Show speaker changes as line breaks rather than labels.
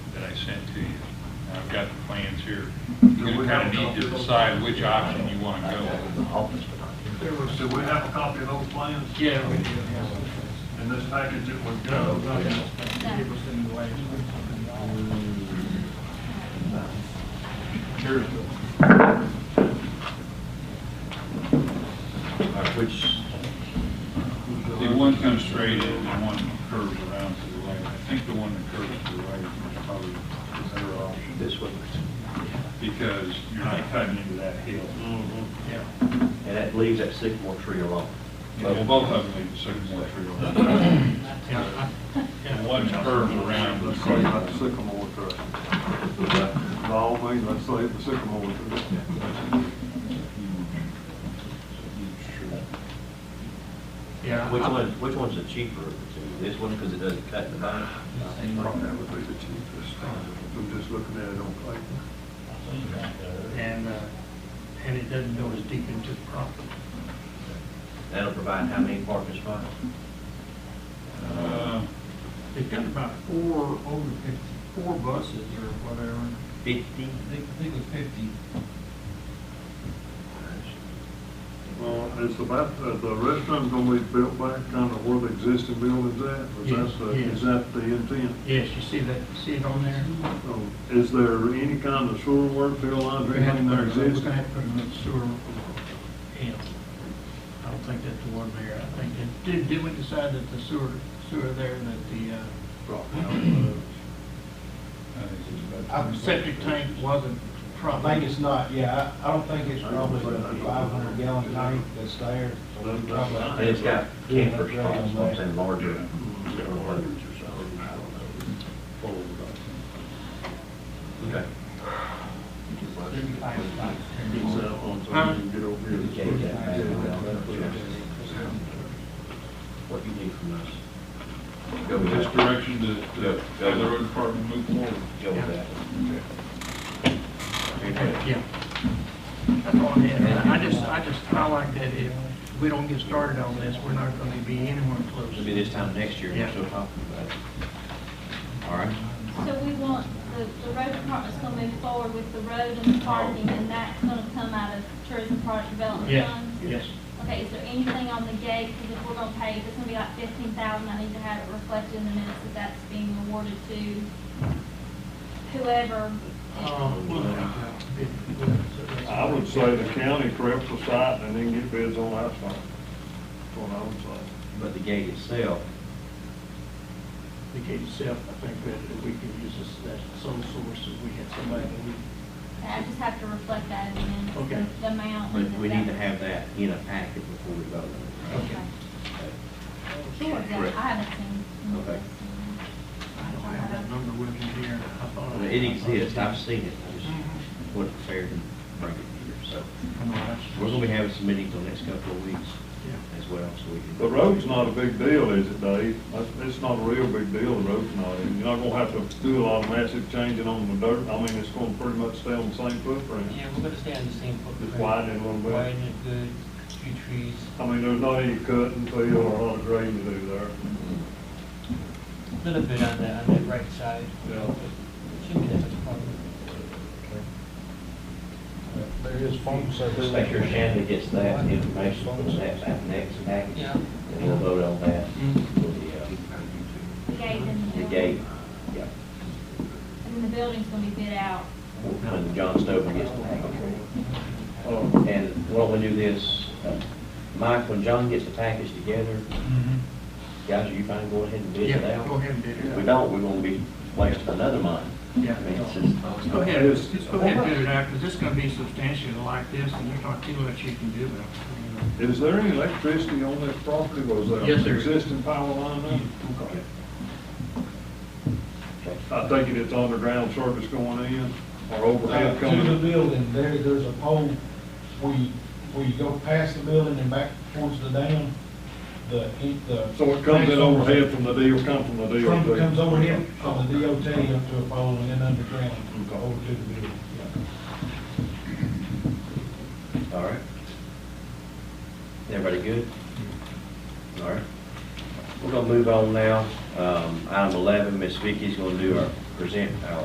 sent to you. And I've got the plans here.
Do
You
we
kind
have
of need to decide which option you want to go with.
There was, do we have a copy of those plans?
Yeah, Oh, we do.
In this package it was done.
Which,
The one comes straight in, and one curves around to the right. I think the one that curves to the right is probably the better option.
this one,
Because you're not cutting into that hill.
and that leaves that sycamore tree alone.
Well, both of them lead to Sycamore Tree. Road. And one curves around.
Let's say that sycamore tree. By all means, let's say the sycamore tree.
Yeah.
Which one, which one's the cheaper of the two? This one, because it doesn't cut in the back?
Probably that would be the cheapest. I'm just looking at it on paper.
And, uh, and it doesn't go as deep into the property.
That'll provide how many parking spots?
Uh,
They've got about four, over fifty, four buses or whatever.
Fifty?
I think, I think it was fifty.
Well, it's about, uh, the restaurant's gonna be built back kind of where the existing building's at. Is that the,
Yes, yes.
is that the intent?
Yes, you see that, see it on there?
So, Is there any kind of sewer work, fill lines, or
We're gonna
anything there
have to put- we're gonna
existing?
have to put another sewer in. I don't think that's the one there. I think, that- did, did we decide that the sewer, sewer there, that the, uh,
I'm
septic tank wasn't
I
proper?
think it's not, yeah, I, I don't think it's probably the five hundred gallon tank that's there. so we probably-
And it's got camper spots, I'm saying larger. Okay.
Thirty-five spots.
Is that on something you can get over here?
What you need from us? Go
in
with
This
that.
direction to, to have the road department move forward.
Go with that.
Yeah. That's all I had. I just, I just, I like that if we don't get started on this, we're not gonna be anywhere close.
It'll be this time next year, we're
Yeah.
still talking about it. All right?
So we want, the, the road department's gonna move forward with the road and the parking, and that's gonna come out of tourism product development
Yeah,
funds?
yes.
Okay, is there anything on the gate, because if we're gonna pay, if it's gonna be like fifteen thousand, I need to have it reflected in the minutes that that's being awarded to whoever.
Uh, we'll have to bid.
I would say the county preps the site and then get bids on asphalt. That's what I would say.
But the gate itself,
The gate itself, I think that if we can use this, that's the sole source, if we had somebody that we,
I just have to reflect that in the minutes,
Okay.
the- the amount.
but
that
we need to
that-
have that in a packet before we vote on it. right?
Okay. Sure, yeah,
Correct.
I haven't seen.
Okay.
I don't have that number with me here. I thought
Well,
I-
It exists, I've seen it, I just
Mhm.
wasn't fair to bring it here, so.
I know, that's-
We're gonna be having some meetings the next couple of weeks
Yeah.
as well, so we can.
The road's not a big deal, is it, Dave? That's- It's not a real big deal, the road's not. And You're not gonna have to do a lot of massive changing on the dirt. I mean, it's gonna pretty much stay on the same footprint.
Yeah, we're gonna stay on the same footprint.
Just widen it a little bit.
Widen it good, few trees.
I mean, there's not any cutting, fill, or a lot of grading to do there.
Little bit on that, on that right side.
Yeah.
Shouldn't be that much problem.
There is phone service.
Just make sure Shannon gets that information,
Mm-hmm.
puts that back next package.
Yeah.
And we'll vote on that
Mm-hmm.
for the, uh,
The gate and the.
the
building.
gate. Yeah.
And then the building's gonna be bid out.
When John Stover gets the package.
Uh,
And why don't we do this, uh, Mike, when John gets the package together,
Mhm.
guys, are you fine going ahead and bid it
Yeah,
out?
go ahead and bid
If we
it out.
don't, we're gonna be wasting another month.
Yeah.
I mean, it's just-
Go ahead, just just go ahead and bid it out, because it's gonna be substantially like this, and there's not too much you can do about it. you know.
Is there any electricity on that property? Was there
Yes, there is.
existing power line there?
Okay.
I think it is underground service going in or
Uh,
overhead
To the
coming.
building, there, there's a pole, where you, where you go past the building and back towards the dam, the, the.
So it comes in overhead from the deal, come from the DOT.
Trump comes over here from the DOT up to a pole and then underground, over to the building, yeah.
All right. Everybody good?
Mm-hmm.
All right. We're gonna move on now. Um, Item 11, Ms. Vicky's gonna do our, present our